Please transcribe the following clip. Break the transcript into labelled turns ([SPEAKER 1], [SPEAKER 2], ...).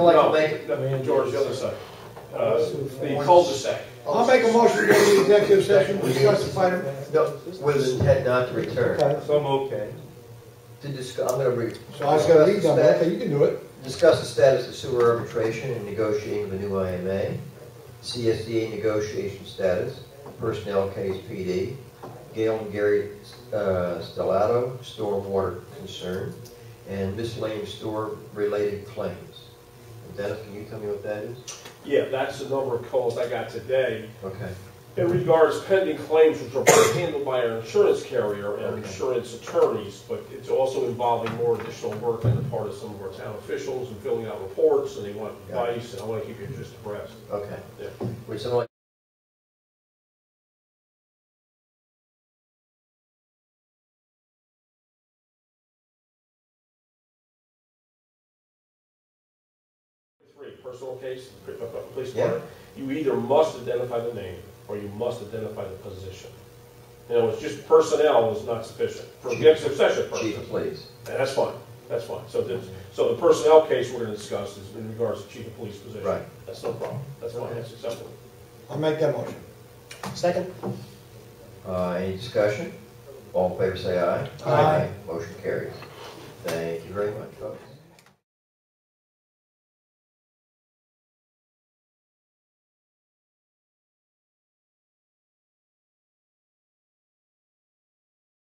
[SPEAKER 1] Like
[SPEAKER 2] No,
[SPEAKER 1] to make-
[SPEAKER 2] I mean, George, the other side, uh, the cul-de-sac.
[SPEAKER 3] I'll make a motion to go to executive session, discuss the final.
[SPEAKER 1] No, with intent not to return,
[SPEAKER 2] Some okay.
[SPEAKER 1] to discuss, I'm gonna re.
[SPEAKER 3] So I just gotta lead them, okay, you can do it.
[SPEAKER 1] Discuss the status of sewer arbitration and negotiating with a new IMA, CSDA negotiation status, personnel case PD, Gail and Gary uh, Stellato, stormwater concern, and miscellaneous store-related claims. Dennis, can you tell me what that is?
[SPEAKER 2] Yeah, that's the number of calls I got today.
[SPEAKER 1] Okay,
[SPEAKER 2] It regards pending claims which are being handled by our insurance carrier and
[SPEAKER 1] Okay.
[SPEAKER 2] insurance attorneys, but it's also involving more additional work on the part of some of our town officials and filling out reports, and they want
[SPEAKER 1] Got it.
[SPEAKER 2] advice, and I want to keep you just abreast.
[SPEAKER 1] okay.
[SPEAKER 2] Yeah.
[SPEAKER 1] Would someone
[SPEAKER 2] Three, personal case, p- p- police
[SPEAKER 1] Yeah.
[SPEAKER 2] department, you either must identify the name or you must identify the position. You know, it's just personnel is not sufficient for the succession
[SPEAKER 1] Chief,
[SPEAKER 2] person.
[SPEAKER 1] please.
[SPEAKER 2] And that's fine, that's fine. So this, so the personnel case we're gonna discuss is in regards to chief of police position.
[SPEAKER 1] Right.
[SPEAKER 2] That's no problem, that's fine, that's acceptable.
[SPEAKER 3] I'll make that motion. Second.
[SPEAKER 1] Uh, Any discussion? All in favor, say aye.
[SPEAKER 3] Aye.
[SPEAKER 1] Motion carries. Thank you very much, folks.